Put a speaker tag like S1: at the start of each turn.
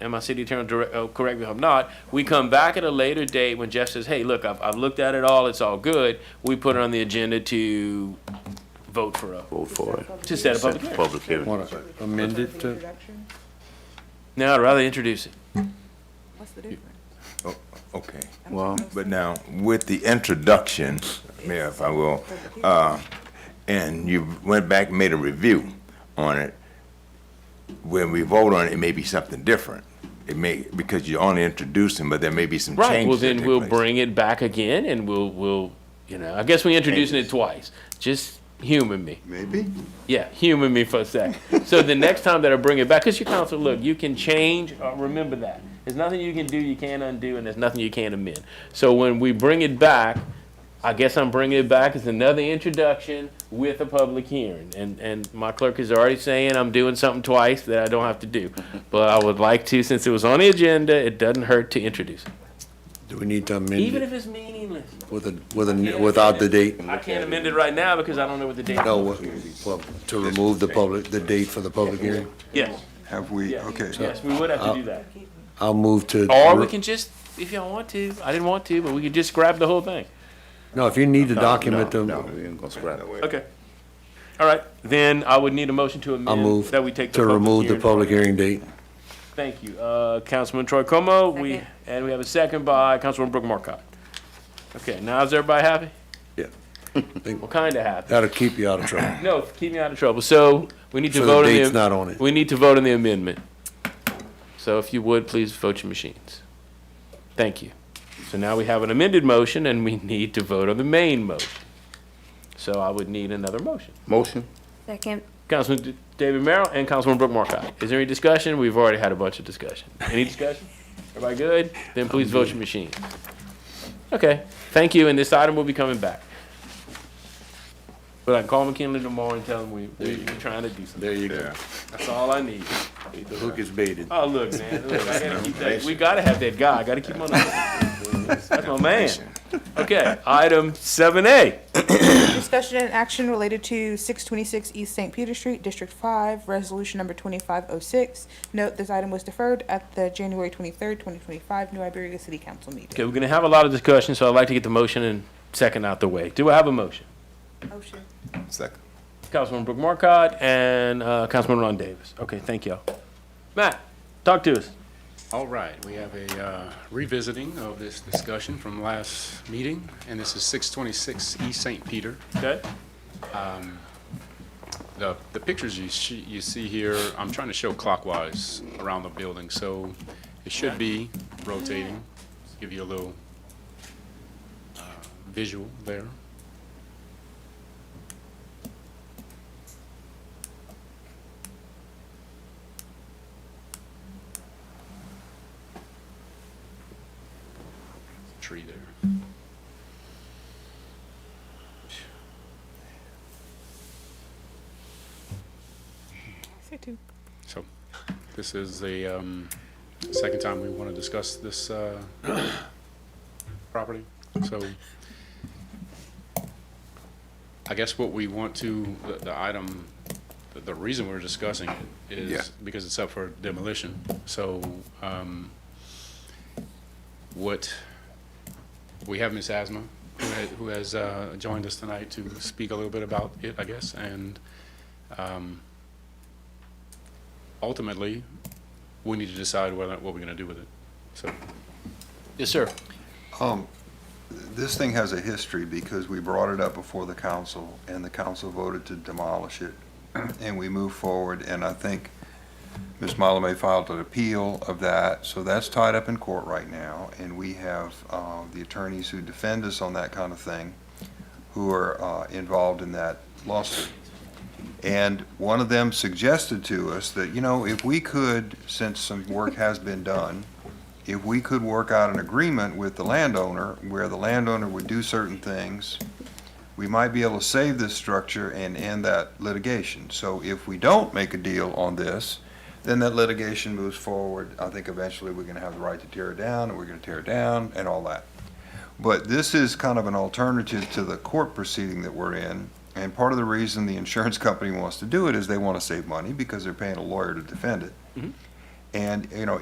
S1: and my city attorney, direct- uh, correct me if I'm not, we come back at a later date when Jeff says, hey, look, I've, I've looked at it all, it's all good, we put it on the agenda to vote for a,
S2: vote for it.
S1: to set a
S2: Set
S1: public
S2: the
S1: hearing.
S2: Public hearing.
S3: Want to amend it to,
S4: Introduction?
S1: Now, I'd rather introduce it.
S4: What's the difference?
S5: Oh, Okay,
S2: Well,
S5: but now, with the introduction, Mayor, if I will, uh, and you went back and made a review on it, when we vote on it, it may be something different. It may, because you're only introducing, but there may be some changes.
S1: Right, well,
S5: that
S1: then
S5: take
S1: we'll
S5: place.
S1: bring it back again and we'll, we'll, you know, I guess we introducing it twice. Just humor me.
S6: Maybe?
S1: Yeah, humor me for a sec. So the next time that I bring it back, because your counsel, look, you can change, uh, remember that. There's nothing you can do, you can't undo, and there's nothing you can't amend. So when we bring it back, I guess I'm bringing it back as another introduction with a public hearing. And, and my clerk is already saying I'm doing something twice that I don't have to do. But I would like to, since it was on the agenda, it doesn't hurt to introduce it.
S3: do we need to amend
S1: Even if
S3: it
S1: it's meaningless.
S3: with a, with a, without the date?
S1: I can't amend it right now because I don't know what the date is.
S3: No, what- well, to remove the public, the date for the public hearing?
S1: Yes,
S6: Have we,
S1: yes,
S6: okay.
S1: yes, we would have to do that.
S3: I'll move to.
S1: Or we can just, if y'all want to, I didn't want to, but we could just grab the whole thing.
S3: No, if you need to document them,
S2: No, we ain't gonna scrap it.
S1: Okay. All right, then I would need a motion to
S3: I'll
S1: amend
S3: move
S1: that we take the
S3: to remove the
S1: public hearing.
S3: public hearing date.
S1: Thank you. Uh, Councilman Troy Como, we,
S4: Second.
S1: and we have a second by Councilman Brooke Markcott. Okay, now is everybody happy?
S3: Yeah.
S1: Well, kinda happy.
S3: That'll keep you out of trouble.
S1: No, keep me out of trouble. So we need to
S3: So the
S1: vote on the.
S3: date's not on it.
S1: We need to vote on the amendment. So if you would, please vote your machines. Thank you. So now we have an amended motion and we need to vote on the main motion. So I would need another motion.
S2: Motion?
S4: Second.
S1: Councilman D- David Merrill and Councilman Brooke Markcott. Is there any discussion? We've already had a bunch of discussion. Any discussion? Everybody good? Then please vote your machine. Okay, thank you, and this item will be coming back. But I can call McKinley tomorrow and tell him we, we- we're trying to do something.
S3: There you
S5: Yeah.
S1: That's all I need.
S3: The hook is baited.
S1: Oh, look, man, look, I gotta keep that, we gotta have that guy, I gotta keep him on. the- That's my man. Okay, item seven A.
S4: Discussion and action related to six twenty-six East St. Peter Street, District Five, Resolution Number twenty-five oh six. Note, this item was deferred at the January twenty-third, twenty twenty-five New Iberia City Council meeting.
S1: Okay, we're gonna have a lot of discussion, so I'd like to get the motion and second out the way. Do I have a motion?
S4: Motion.
S5: Second.
S1: Councilman Brooke Markcott and uh, Councilman Ron Davis. Okay, thank y'all. Matt, talk to us.
S7: All right, we have a uh, revisiting of this discussion from last meeting, and this is 626 East St. Peter.
S1: Okay,
S7: The the pictures you sh- you see here, I'm trying to show clockwise around the building, so it should be rotating. Give you a little uh, visual there. Tree there.
S4: Say two.
S7: So this is the um, second time we want to discuss this uh, property. So I guess what we want to, the- the item, the- the reason we're discussing it
S5: Yeah.
S7: is because it's up for demolition. So um, what, we have Ms. Asma, who ha- who has uh, joined us tonight to speak a little bit about it, I guess, and um, ultimately, we need to decide whether, what we're gonna do with it. So,
S1: yes, sir.
S6: Um, this thing has a history because we brought it up before the council and the council voted to demolish it. And we moved forward and I think Ms. Malame filed an appeal of that, so that's tied up in court right now. And we have, uh, the attorneys who defend us on that kind of thing who are, uh, involved in that lawsuit. And one of them suggested to us that, you know, if we could, since some work has been done, if we could work out an agreement with the landowner where the landowner would do certain things, we might be able to save this structure and end that litigation. So if we don't make a deal on this, then that litigation moves forward. I think eventually we're gonna have the right to tear it down, and we're gonna tear it down, and all that. But this is kind of an alternative to the court proceeding that we're in. And part of the reason the insurance company wants to do it is they wanna save money because they're paying a lawyer to defend it. And, you know,